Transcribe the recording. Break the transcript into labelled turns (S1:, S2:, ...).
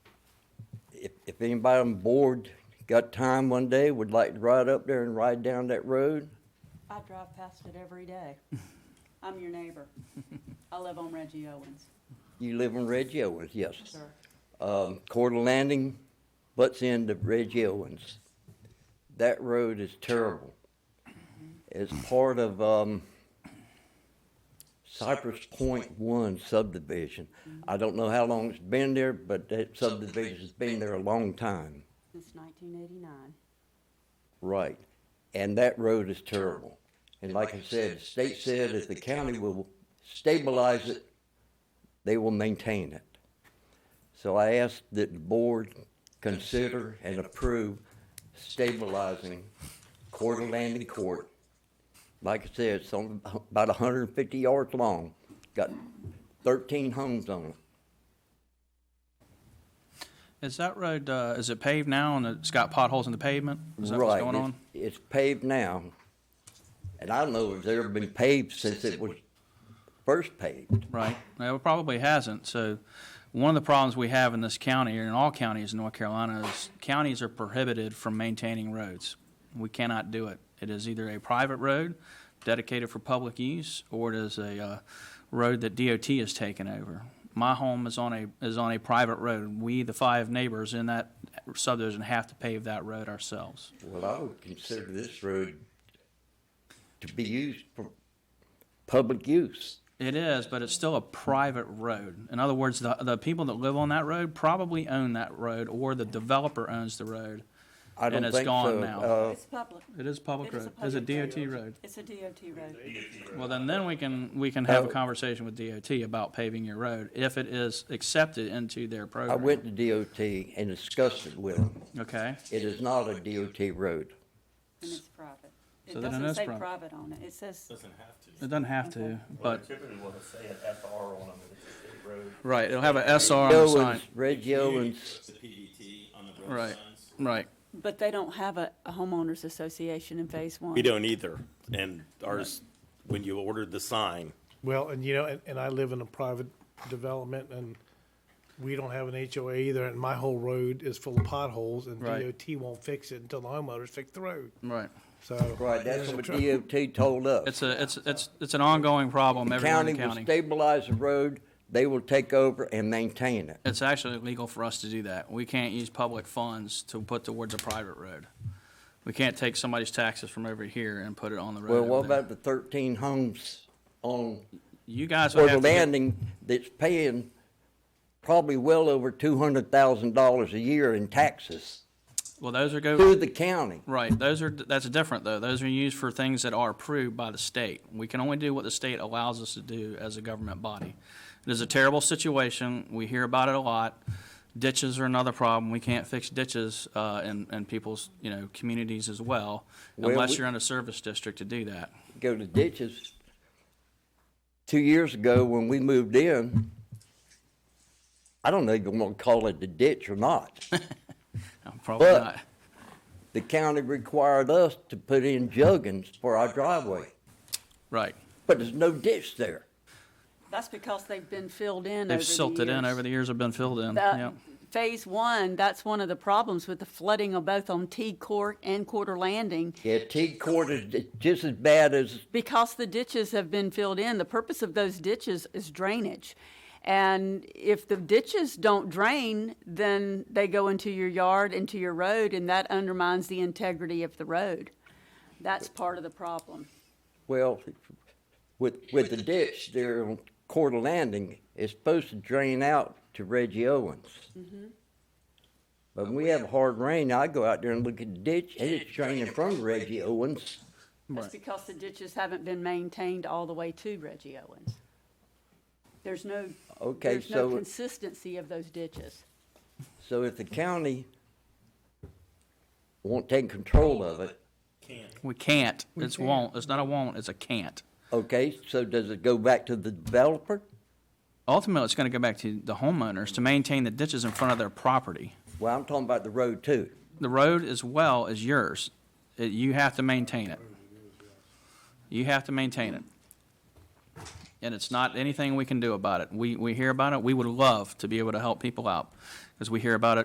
S1: if anybody on board got time one day, would like to ride up there and ride down that road,
S2: I drive past it every day. I'm your neighbor. I live on Reggie Owens.
S1: you live in Reggie Owens, yes.
S2: Sure.
S1: Um, Coeur Landing butts into Reggie Owens. That road is terrible. It's part of, um, Cypress Point One subdivision. I don't know how long it's been there, but that subdivision's been there a long time.
S2: Since nineteen eighty-nine.
S1: Right. And that road is terrible. And like I said, the state said if the county will stabilize it, they will maintain it. So I ask that the board consider and approve stabilizing Coeur d'Alene Court. Like I said, it's only about hundred and fifty yards long, got thirteen homes on it.
S3: Is that road, uh, is it paved now and it's got potholes in the pavement? Is that what's
S1: Right,
S3: going
S1: it's-
S3: on?
S1: It's paved now, and I don't know if it's ever been paved since it was first paved.
S3: Right. No, it probably hasn't. So one of the problems we have in this county, and in all counties in North Carolina, is counties are prohibited from maintaining roads. We cannot do it. It is either a private road dedicated for public use, or it is a, uh, road that DOT has taken over. My home is on a, is on a private road. We, the five neighbors in that subdivision, have to pave that road ourselves.
S1: Well, I would consider this road to be used for public use.
S3: It is, but it's still a private road. In other words, the, the people that live on that road probably own that road, or the developer owns the road.
S1: I
S3: And
S1: don't
S3: it's
S1: think
S3: gone
S1: so.
S3: now.
S1: Uh,
S2: It's public.
S3: It is public
S2: It is
S3: road. It's a
S2: public
S3: DOT road.
S2: It's a DOT road.
S3: Well, then, then we can, we can have a
S1: Oh.
S3: conversation with DOT about paving your road, if it is accepted into their
S1: I
S3: program.
S1: went to DOT and discussed it with them.
S3: Okay,
S1: It is not a DOT road.
S2: And it's private. It
S3: So then it
S2: doesn't
S3: is
S2: say
S3: private.
S2: private on it. It says,
S4: Doesn't have
S3: it
S4: to.
S3: doesn't have to, but,
S4: Typically will say an FR on them, it's a state road.
S3: right, it'll have a SR on the sign.
S1: Owens, Reggie Owens,
S4: It's a PDT E on the road
S3: Right,
S4: signs.
S3: right.
S2: but they don't have a a homeowners association in phase one.
S5: We don't either. And ours, when you ordered the sign,
S6: Well, and you know, and, and I live in a private development and we don't have an HOA either, and my whole road is full of potholes and
S3: Right.
S6: DOT won't fix it until the homeowners fix the road,
S3: Right.
S6: so.
S1: right, that's
S6: There's a
S1: what
S6: tr-
S1: DOT told us.
S3: It's a, it's, it's, it's an ongoing problem everywhere in the
S1: County will
S3: county.
S1: stabilize the road, they will take over and maintain it.
S3: It's actually illegal for us to do that. We can't use public funds to put towards a private road. We can't take somebody's taxes from over here and put it on the road.
S1: Well,
S3: over
S1: what
S3: there.
S1: about the thirteen homes on
S3: You guys would
S1: Porter
S3: have to, get-
S1: Landing that's paying probably well over two hundred thousand dollars a year in taxes
S3: well, those are go,
S1: to the county?
S3: right, those are, that's different though. Those are used for things that are approved by the state. We can only do what the state allows us to do as a government body. It is a terrible situation. We hear about it a lot. Ditches are another problem. We can't fix ditches, uh, in, in people's, you know, communities as well,
S1: Well, we-
S3: unless you're in a service district to do that.
S1: Go to ditches. Two years ago, when we moved in, I don't know if you wanna call it the ditch or not.
S3: Probably
S1: But-
S3: not.
S1: The county required us to put in juggins for our driveway,
S3: Right.
S1: but there's no ditch there.
S2: That's because they've been filled in over the
S3: They've silted in
S2: years.
S3: over the years, have been filled in,
S2: That-
S3: yeah.
S2: Phase one, that's one of the problems with the flooding of both on T Court and Quarter Landing.
S1: Yeah, T court is just as bad as
S2: because the ditches have been filled in, the purpose of those ditches is drainage. And if the ditches don't drain, then they go into your yard, into your road, and that undermines the integrity of the road. That's part of the problem.
S1: Well, with, with the ditch there on Coeur Landing, it's supposed to drain out to Reggie Owens. Mm-hmm. But when we have a hard rain, I go out there and look at the Oh, ditch, and it's draining from Reggie Owens.
S2: That's because the ditches haven't been maintained all the way to Reggie Owens. There's no,
S1: Okay,
S2: there's no
S1: so,
S2: consistency of those ditches.
S1: so if the county won't take control of it,
S3: We can't. It's won't. It's not a won't, it's a can't.
S1: okay, so does it go back to the developer?
S3: Ultimately, it's gonna go back to the homeowners to maintain the ditches in front of their property.
S1: Well, I'm talking about the road too.
S3: The road as well is yours. It- You have to maintain it. You have to maintain it. And it's not anything we can do about it. We, we hear about it. We would love to be able to help people out, because we hear about it